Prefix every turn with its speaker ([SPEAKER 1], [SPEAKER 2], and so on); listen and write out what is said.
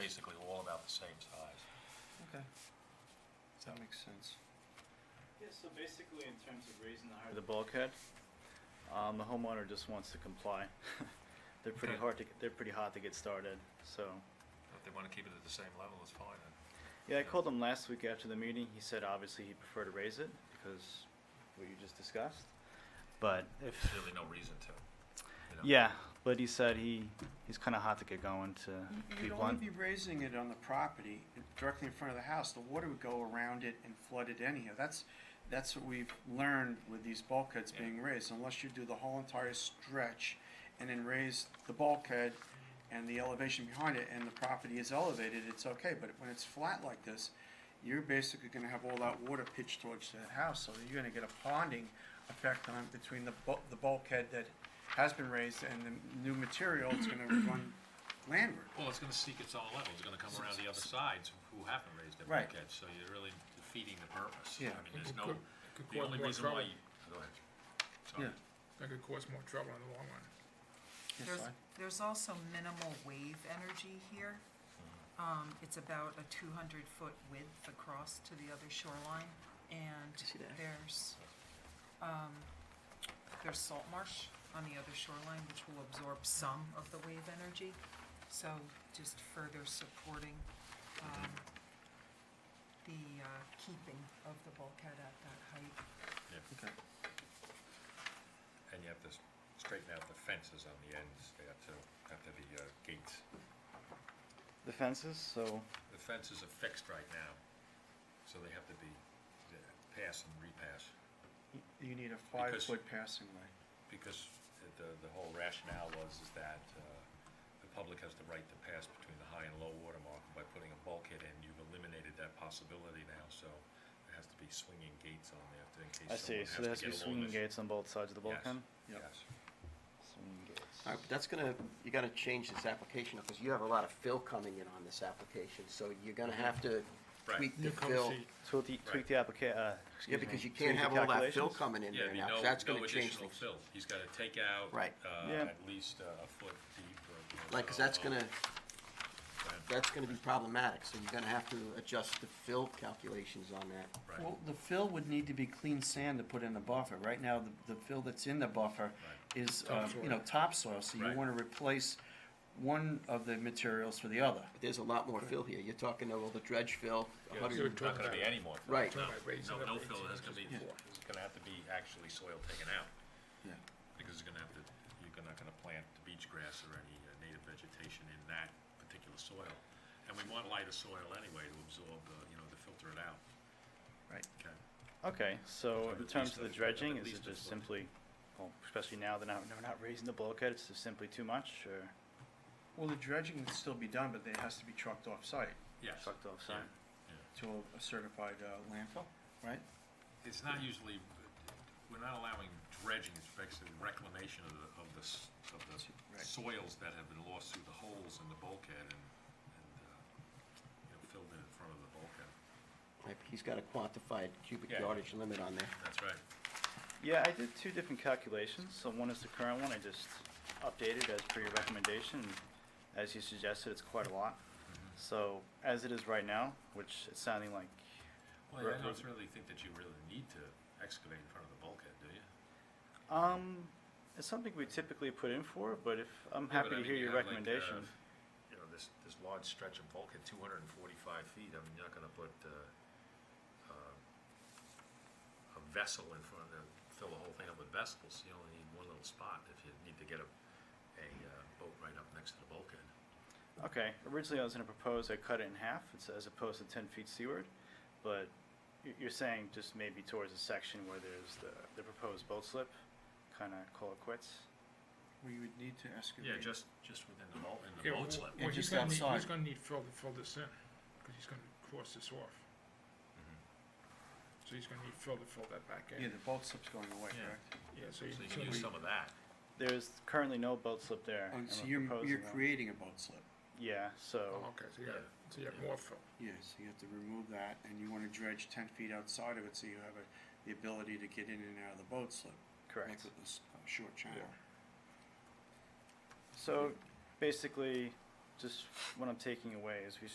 [SPEAKER 1] the same size.
[SPEAKER 2] Okay. That makes sense.
[SPEAKER 3] Yeah, so basically in terms of raising the height of the bulkhead, um, the homeowner just wants to comply. They're pretty
[SPEAKER 1] Okay.
[SPEAKER 3] hard to, they're pretty hot to get started, so.
[SPEAKER 1] If they want to keep it at the same level, it's fine then.
[SPEAKER 3] Yeah, I called him last week after the meeting, he said obviously he'd prefer to raise it because what you just discussed. But if,
[SPEAKER 1] There's really no reason to. you know.
[SPEAKER 3] yeah, but he said he, he's kinda hot to get going to be
[SPEAKER 2] You'd only
[SPEAKER 3] blunt.
[SPEAKER 2] be raising it on the property directly in front of the house. The water would go around it and flood it anyhow. That's, that's what we've learned with these bulkheads
[SPEAKER 1] Yeah.
[SPEAKER 2] being raised. Unless you do the whole entire stretch and then raise the bulkhead and the elevation behind it and the property is elevated, it's okay. But when it's flat like this, you're basically gonna have all that water pitched towards that house. So you're gonna get a ponding effect on, between the bu- the bulkhead that has been raised and the new material that's gonna run landward.
[SPEAKER 4] Well, it's gonna seek its own level, it's gonna come around the other sides who haven't raised their
[SPEAKER 2] Right.
[SPEAKER 4] bulkhead, so you're really defeating the purpose.
[SPEAKER 2] Yeah.
[SPEAKER 4] I mean, there's
[SPEAKER 5] Could-
[SPEAKER 4] no,
[SPEAKER 5] could
[SPEAKER 4] the
[SPEAKER 5] cause
[SPEAKER 4] only
[SPEAKER 5] more
[SPEAKER 4] reason why
[SPEAKER 5] trouble.
[SPEAKER 4] you, go ahead.
[SPEAKER 2] Yeah.
[SPEAKER 4] Sorry.
[SPEAKER 5] That could cause more trouble in the long run.
[SPEAKER 2] Yes,
[SPEAKER 6] There's,
[SPEAKER 2] I-
[SPEAKER 6] there's also minimal wave energy here. Um, it's about a two hundred foot width across to the other shoreline, and there's, um, there's salt marsh on the other shoreline, which will absorb some of the wave energy, so just further supporting, um, the, uh, keeping of the bulkhead at that height.
[SPEAKER 2] Okay.
[SPEAKER 4] Yeah.
[SPEAKER 1] And you have to s- straighten out the fences on the ends, they have to, after the uh, gates.
[SPEAKER 3] The fences, so,
[SPEAKER 1] The fences are fixed right now, so they have to be uh, pass and repass.
[SPEAKER 2] You need a
[SPEAKER 1] Because-
[SPEAKER 2] five-foot passing way.
[SPEAKER 1] Because the- the, the whole rationale was is that uh, the public has the right to pass between the high and low water mark. By putting a bulkhead in, you've eliminated that possibility now, so there has to be swinging gates on there to- in case
[SPEAKER 3] I see,
[SPEAKER 1] someone
[SPEAKER 3] so there has to be
[SPEAKER 1] get along
[SPEAKER 3] swinging
[SPEAKER 1] this-
[SPEAKER 3] gates on both sides of the
[SPEAKER 1] Yes.
[SPEAKER 3] bulkhead?
[SPEAKER 2] Yep.
[SPEAKER 1] Yes.
[SPEAKER 3] Swinging gates.
[SPEAKER 7] All right, but that's gonna, you're gonna change this application, because you have a lot of fill coming in on this application, so you're gonna have to
[SPEAKER 1] Right.
[SPEAKER 7] tweak the fill.
[SPEAKER 3] Tweak the, tweak the applica- uh,
[SPEAKER 7] Yeah,
[SPEAKER 3] excuse me.
[SPEAKER 7] because you
[SPEAKER 3] tweak
[SPEAKER 7] can't
[SPEAKER 3] the
[SPEAKER 7] have all that
[SPEAKER 3] calculations.
[SPEAKER 7] fill coming in
[SPEAKER 1] Yeah,
[SPEAKER 7] there
[SPEAKER 1] there'd be
[SPEAKER 7] now, 'cause
[SPEAKER 1] no,
[SPEAKER 7] that's
[SPEAKER 1] no
[SPEAKER 7] gonna change
[SPEAKER 1] additional
[SPEAKER 7] things.
[SPEAKER 1] fill. He's gotta take out.
[SPEAKER 7] Right.
[SPEAKER 3] Yeah.
[SPEAKER 1] Uh, at least uh, a foot deep or. you
[SPEAKER 7] Like, 'cause
[SPEAKER 1] know,
[SPEAKER 7] that's
[SPEAKER 1] uh,
[SPEAKER 7] gonna,
[SPEAKER 1] right.
[SPEAKER 7] that's gonna be problematic, so you're gonna have to adjust the fill calculations on that.
[SPEAKER 1] Right.
[SPEAKER 2] Well, the fill would need to be clean sand to put in the buffer. Right now, the, the fill that's in the buffer is, uh, you know, topsoil, so you
[SPEAKER 1] Right.
[SPEAKER 2] wanna replace one of the materials for the other.
[SPEAKER 7] But There's a lot more fill here, you're talking about all the dredge fill, a
[SPEAKER 1] Yeah,
[SPEAKER 7] hundred
[SPEAKER 1] There's not gonna be any more. fill.
[SPEAKER 7] Right.
[SPEAKER 1] No,
[SPEAKER 5] Right, raise it
[SPEAKER 1] no,
[SPEAKER 5] up
[SPEAKER 1] no
[SPEAKER 5] to
[SPEAKER 1] fill,
[SPEAKER 5] 18
[SPEAKER 1] there's gonna be, there's gonna have to be actually soil taken out.
[SPEAKER 2] Yeah.
[SPEAKER 1] Because you're gonna have to, you're not gonna plant the beach grass or any uh, native vegetation in that particular soil. And we want lighter soil anyway to absorb, the, you know, to filter it out.
[SPEAKER 2] Right.
[SPEAKER 1] Okay.
[SPEAKER 3] Okay, so
[SPEAKER 1] At
[SPEAKER 3] in
[SPEAKER 1] least
[SPEAKER 3] terms of
[SPEAKER 1] a-
[SPEAKER 3] the
[SPEAKER 1] at
[SPEAKER 3] dredging, is
[SPEAKER 1] least a
[SPEAKER 3] it just
[SPEAKER 1] foot.
[SPEAKER 3] simply, well, especially now they're not, they're not raising the bulkhead, it's just simply too much or
[SPEAKER 2] Well, the dredging would still be done, but it has to be trucked off-site
[SPEAKER 1] Yes.
[SPEAKER 3] sucked off
[SPEAKER 1] Yeah.
[SPEAKER 3] site?
[SPEAKER 2] to a certified, uh, landfill, right?
[SPEAKER 1] It's not usually, we're not allowing dredging, it's basically reclamation of the, of the, s- of the
[SPEAKER 2] Right.
[SPEAKER 1] soils that have been lost through the holes in the bulkhead and, and, uh, you know, filled in in front of the bulkhead.
[SPEAKER 7] Right, He's got a quantified cubic
[SPEAKER 1] Yeah.
[SPEAKER 7] yardage limit on there.
[SPEAKER 1] That's right.
[SPEAKER 3] Yeah, I did two different calculations, so one is the current one, I just updated as per your recommendation. and As you suggested, it's quite a lot.
[SPEAKER 1] Mm-hmm.
[SPEAKER 3] So as it is right now, which it's sounding like,
[SPEAKER 1] Well, I
[SPEAKER 3] Right.
[SPEAKER 1] don't really think that you really need to excavate in front of the bulkhead, do you?
[SPEAKER 3] um, it's something we typically put in for, but if,
[SPEAKER 1] Yeah, but
[SPEAKER 3] I'm happy
[SPEAKER 1] I
[SPEAKER 3] to
[SPEAKER 1] mean,
[SPEAKER 3] hear
[SPEAKER 1] you
[SPEAKER 3] your
[SPEAKER 1] have, like,
[SPEAKER 3] recommendation.
[SPEAKER 1] uh, You know, this, this large stretch of bulkhead, two hundred and forty-five feet, I mean, you're not gonna put, uh, uh, a vessel in front of, fill the whole thing up with vessels, you only need one little spot if you need to get a, a, uh, boat right up next to the bulkhead.
[SPEAKER 3] Okay, originally I was gonna propose I cut it in half, it's as opposed to ten feet seaward, but y- you're saying just maybe towards the section where there's the, the proposed boat slip, kinda call it quits?
[SPEAKER 2] We would need to excavate.
[SPEAKER 1] Yeah, just, just within the boat, in the
[SPEAKER 5] Yeah,
[SPEAKER 1] boat
[SPEAKER 5] well,
[SPEAKER 1] slip.
[SPEAKER 2] Yeah,
[SPEAKER 5] well,
[SPEAKER 2] just
[SPEAKER 5] he's gonna need-
[SPEAKER 2] outside.
[SPEAKER 5] He's gonna need fill to fill this in, because he's gonna cross this off. So he's gonna need fill to fill that back
[SPEAKER 2] Yeah,
[SPEAKER 5] in.
[SPEAKER 2] the boat slip's going away,
[SPEAKER 1] Yeah.
[SPEAKER 2] correct?
[SPEAKER 5] Yeah,
[SPEAKER 1] So
[SPEAKER 5] so you
[SPEAKER 1] you
[SPEAKER 5] so
[SPEAKER 1] can use
[SPEAKER 5] we-
[SPEAKER 1] some of that.
[SPEAKER 3] There's currently no boat slip there.
[SPEAKER 2] Oh,
[SPEAKER 3] and
[SPEAKER 2] so
[SPEAKER 3] we're
[SPEAKER 2] you're,
[SPEAKER 3] proposing
[SPEAKER 2] you're
[SPEAKER 3] that.
[SPEAKER 2] creating a boat slip.
[SPEAKER 3] Yeah,
[SPEAKER 5] Oh,
[SPEAKER 3] so,
[SPEAKER 5] okay, so you have,
[SPEAKER 1] Yeah.
[SPEAKER 5] so you have
[SPEAKER 1] Yeah.
[SPEAKER 5] more fill.
[SPEAKER 2] Yeah, so you have to remove that, and you wanna dredge ten feet outside of it, so you have a, the ability to get in and out of the boat slip. Like
[SPEAKER 3] correct.
[SPEAKER 2] with this uh, short channel.
[SPEAKER 3] So basically, just what I'm taking away is we